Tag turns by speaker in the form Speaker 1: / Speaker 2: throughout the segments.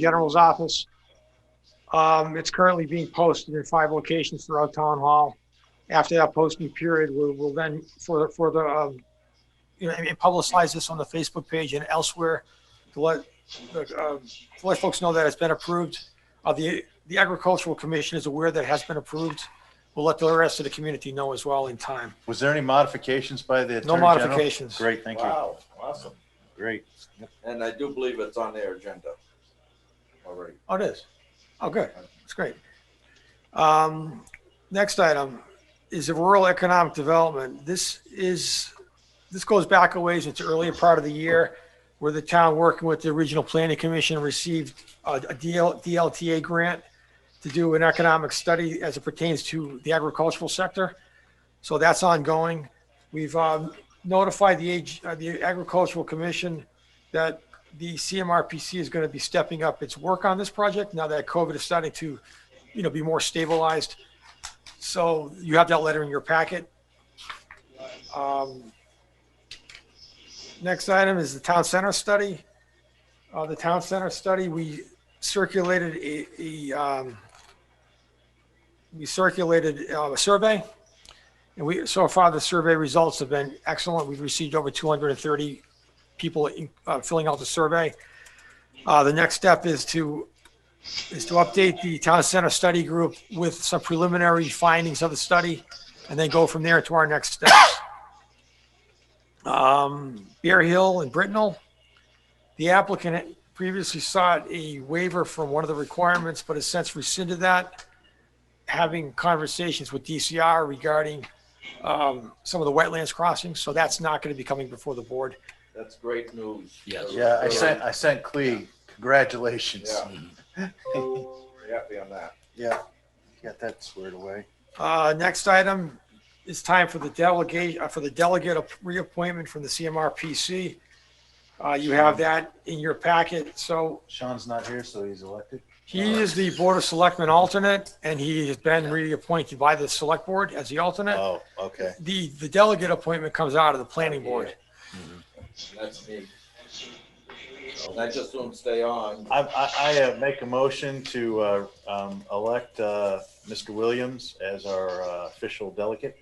Speaker 1: General's Office. Um, It's currently being posted in five locations throughout Town Hall. After that posting period, we will then, for, for the, um, you know, and publicize this on the Facebook page and elsewhere to let, uh, to let folks know that it's been approved. Uh, The the Agricultural Commission is aware that it has been approved. We'll let the rest of the community know as well in time.
Speaker 2: Was there any modifications by the Attorney
Speaker 1: No
Speaker 2: General?
Speaker 1: modifications.
Speaker 2: Great, thank you.
Speaker 3: Wow, awesome.
Speaker 2: Great.
Speaker 3: And I do believe it's on their agenda already.
Speaker 1: Oh, it is? Oh, good. That's great. Um, next item is the rural economic development. This is, this goes back a ways. It's earlier part of the year where the town working with the Regional Planning Commission received a, a DL, DLTA grant to do an economic study as it pertains to the agricultural sector. So that's ongoing. We've, um, notified the age, uh, the Agricultural Commission that the CMRPC is going to be stepping up its work on this project now that COVID is starting to, you know, be more stabilized. So you have that letter in your packet. Um, Next item is the town center study. Uh, the town center study, we circulated a, a, um, we circulated uh, a survey. And we, so far, the survey results have been excellent. We've received over 230 people uh, filling out the survey. Uh, The next step is to, is to update the town center study group with some preliminary findings of the study, and then go from there to our next steps. Um, Bear Hill and Brittenell, the applicant previously sought a waiver from one of the requirements, but has since rescinded that. Having conversations with DCR regarding um, some of the wetlands crossings, so that's not going to be coming before the board.
Speaker 3: That's great news.
Speaker 4: Yes.
Speaker 2: Yeah, I sent, I sent Clea, congratulations.
Speaker 3: Yeah. We're happy on that.
Speaker 2: Yeah, got that squared away.
Speaker 1: Uh, next item is time for the delegate, uh, for the delegate reappointment from the CMRPC. Uh, you have that in your packet. So
Speaker 2: Sean's not here, so he's elected.
Speaker 1: he is the Board of Selectmen alternate and he has been reappointed by the Select Board as the alternate.
Speaker 2: Oh, okay.
Speaker 1: The, the delegate appointment comes out of the Planning Board.
Speaker 3: And That's me. And I just don't stay on.
Speaker 2: I, I, I uh, make a motion to, uh, um, elect, uh, Mr. Williams as our uh, official delegate.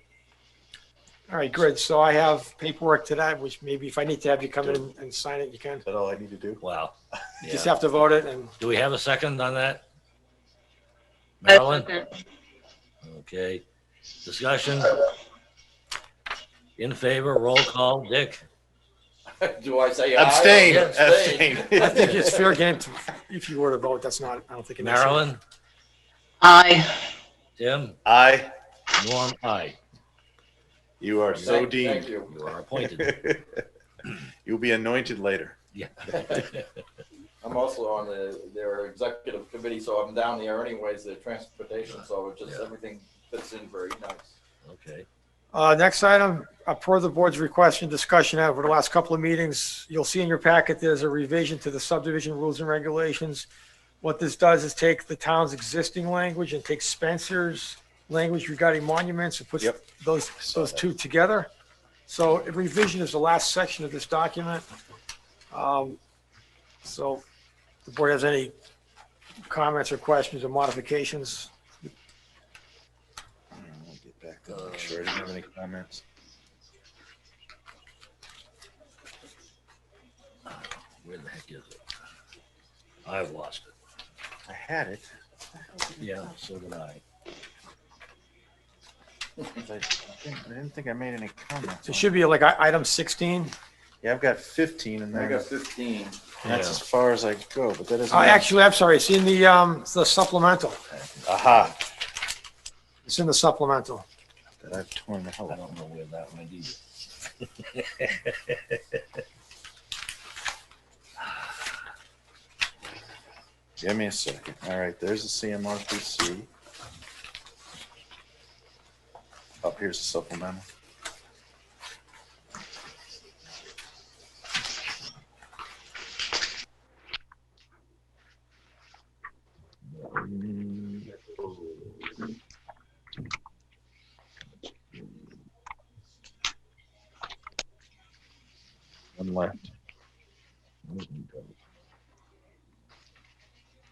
Speaker 1: All right, good. So I have paperwork to that, which maybe if I need to have you come in and sign it, you can.
Speaker 2: Is that all I need to do?
Speaker 4: Wow.
Speaker 1: You Just
Speaker 4: Yeah.
Speaker 1: have to vote it and
Speaker 4: Do we have a second on that?
Speaker 5: I
Speaker 4: Marilyn?
Speaker 5: second.
Speaker 4: Okay. Discussion? In favor, roll call. Dick?
Speaker 3: Do I say aye?
Speaker 2: Abstain,
Speaker 4: Yeah,
Speaker 2: abstain.
Speaker 1: I think it's fair game to- if you were to vote. That's not, I don't think. an issue.
Speaker 4: Marilyn?
Speaker 5: Aye.
Speaker 4: Tim?
Speaker 2: Aye,
Speaker 4: Norm? Aye.
Speaker 2: you are so
Speaker 3: Thank- Thank
Speaker 2: deemed.
Speaker 3: you.
Speaker 4: You are appointed.
Speaker 2: You'll be anointed later.
Speaker 4: Yeah.
Speaker 3: I'm also on the, their executive committee, so I'm down there anyways, the transportation, so it just,
Speaker 4: Yeah.
Speaker 3: everything fits in very nice.
Speaker 4: Okay.
Speaker 1: Uh, next item, uh, per the board's request and discussion over the last couple of meetings, you'll see in your packet, there's a revision to the subdivision rules and regulations. What this does is take the town's existing language and take Spencer's language regarding monuments and puts
Speaker 2: Yep.
Speaker 1: those,
Speaker 2: Saw
Speaker 1: those
Speaker 2: that.
Speaker 1: two together. So a revision is the last section of this document. Um, so if the board has any comments or questions or modifications?
Speaker 2: I'll Get back to make sure I didn't have any comments.
Speaker 4: Where the heck is it? I've lost it.
Speaker 2: I had it.
Speaker 4: Yeah, so did I.
Speaker 2: I I think- I didn't think I made any comments.
Speaker 1: It
Speaker 2: on
Speaker 1: should be like i- item 16.
Speaker 2: Yeah, I've got 15 and
Speaker 3: I got
Speaker 2: that's,
Speaker 3: fifteen.
Speaker 2: that's
Speaker 4: Yeah.
Speaker 2: as far as I go, but that doesn't.
Speaker 1: Uh, actually, I'm sorry, it's in the, um, the supplemental.
Speaker 2: Aha,
Speaker 1: It's in the supplemental.
Speaker 2: that I've torn the hell
Speaker 4: I
Speaker 2: out.
Speaker 4: don't know where that went either.
Speaker 2: Give me a second. All right, there's the CMRPC. Up Oh, here's the supplemental.